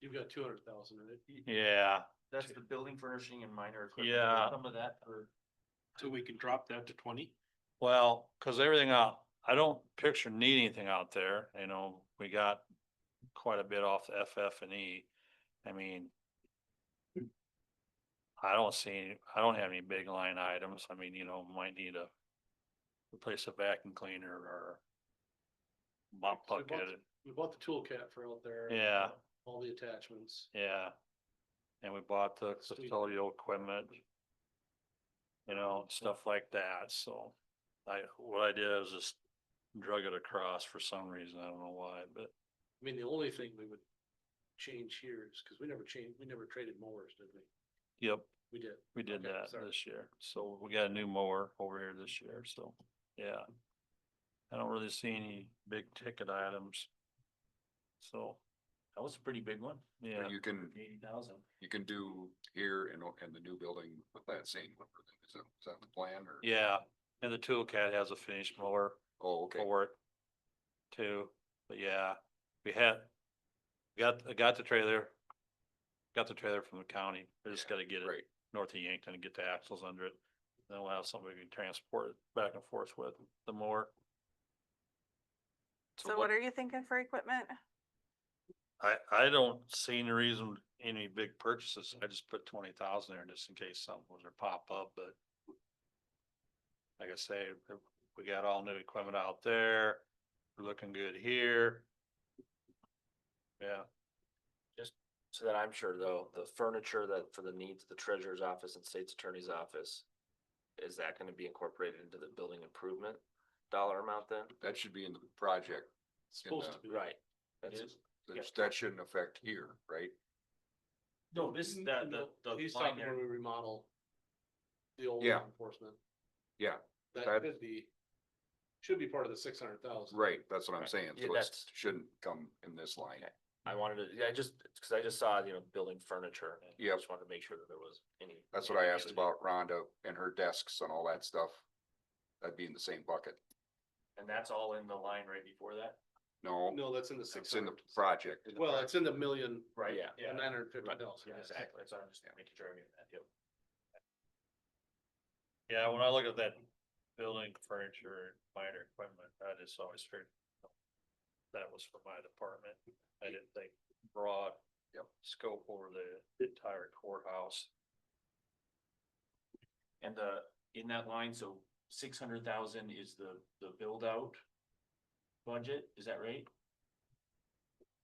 You've got two hundred thousand, right? Yeah, That's the building furnishing and minor equipment. Yeah. Some of that for, So we can drop that to twenty? well, cause everything out, I don't picture need anything out there, you know, we got quite a bit off the FF and E. I mean. I don't see, any- I don't have any big line items. I mean, you know, might need a replace a vacuum cleaner or mop So we bought bucket, We bought the tool cat for out there. Yeah. All the attachments. yeah. And we bought the Sweet. custodial equipment. You know, Mm-hmm. stuff like that, so I, what I did is just drug it across for some reason, I don't know why, but I mean, the only thing we would change here is, cause we never changed, we never traded mowers, did we? yep, We did. we did Okay, that sorry. this year. So we got a new mower over here this year, so, yeah. I don't really see any big ticket items. So, that was a pretty big one, yeah, But you can, eighty thousand. you can do here and, o- and the new building with that same number then, is that, is that the plan or? yeah, and the tool cat has a finished mower. Oh, okay, for it too. But yeah, we had, got, I got the trailer, got the trailer from the county. We just Yeah, gotta get it great, north of Yankton and get the axles under it. Then we'll have somebody we can transport it back and forth with the more. So what are you thinking for equipment? I, I don't see any reason, any big purchases. I just put twenty thousand there just in case something was to pop up, but. Like I say, we got all new equipment out there, we're looking good here. Yeah, So then I'm sure though, the furniture that for the needs of the treasurer's office and state's attorney's office, is that gonna be incorporated into the building improvement dollar amount then? that should be in the project, It's Supposed to be. Right. That's, Yes. That's- that shouldn't affect here, right? Mm-hmm. no, this, N- that, the, no, the He's line talking there, when we remodel. The old Yeah. law enforcement. Yeah, That that- could be, should be part of the six hundred thousand. Right, that's what I'm Right. saying, Yeah, so it that's- shouldn't come in this line. Okay. I wanted to, yeah, I just, cause I just saw, you know, building furniture. and I Yep. Just wanted to make sure that there was any. That's what I asked any- about Rhonda and her desks and all that stuff. That'd be in the same bucket, And that's all in the line right before that? no, No, that's in the six it's in the hundred. project. Well, it's in the million, Right, Yeah. Yeah. nine hundred fifty Right, thousand. Yeah, exactly, so I'm just making sure I knew that, yep. yeah, when I look at that building furniture, minor equipment, I just always figured. That was for my department. I didn't think broad. Yep. Scope over the entire courthouse. And the, in that line, so six hundred thousand is the, the build out budget, is that right?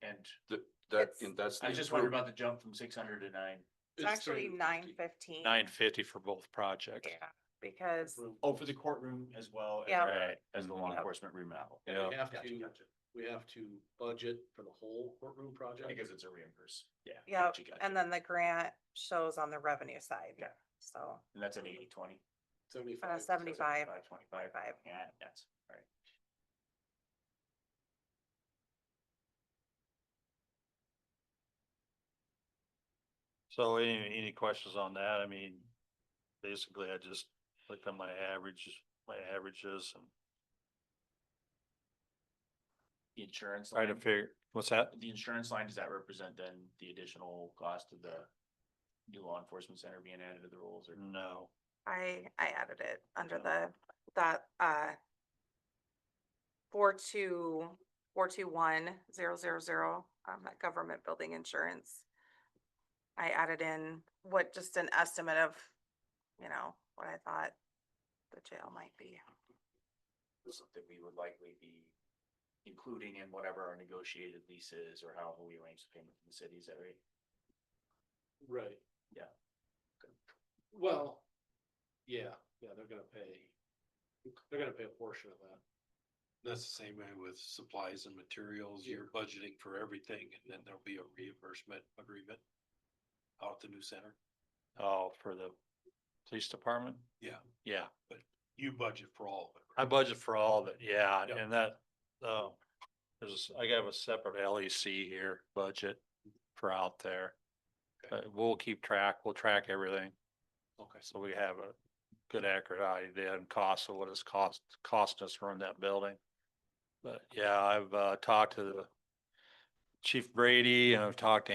And Th- That, It's- and that's. I the just wondered improve- about the jump from six hundred to nine. It's actually nine fifteen. Nine fifty for both projects. Yeah, because Oh, for the courtroom as well. and- Yeah. Right. As the law Yep. enforcement remodel. And we have Oh, Gotcha, to, gotcha. we have to budget for the whole courtroom project. Because it's a reimburse. Yeah. yeah, gotcha, gotcha. and then the grant shows on the revenue side. Yeah. So And that's an eighty twenty. uh, Seventy-five. seventy-five, Five twenty-five. Five. Yeah, that's right. So any, any questions on that? I mean, basically I just looked at my averages, my averages and The Insurance. tried to line. figure, what's that? The insurance line, does that represent then the additional cost of the new law enforcement center being added to the rolls or? No. I, I added it under Yeah. the, that, uh, four two, four two one, zero, zero, zero, um, that government building insurance. I added in what, just an estimate of, you know, what I thought the jail might be. something we would likely be including in whatever our negotiated leases or however we arrange the payment from the city, is that right? Right. Yeah. Well, yeah, yeah, they're gonna pay, they're gonna pay a portion of that. That's the same way with supplies and materials, you're budgeting for everything, and then there'll be a reimbursement agreement out at the new center. Oh, for the police department? Yeah. Yeah, You budget for all of it. I budget for all of it, yeah, Yep. and that, uh, there's, I have a separate LEC here budget for out there. Okay. But we'll keep track, we'll track everything. Okay. So we have a good accurate idea and cost of what it's cost, cost us to run that building. But yeah, I've uh, talked to the Chief Brady and I've talked to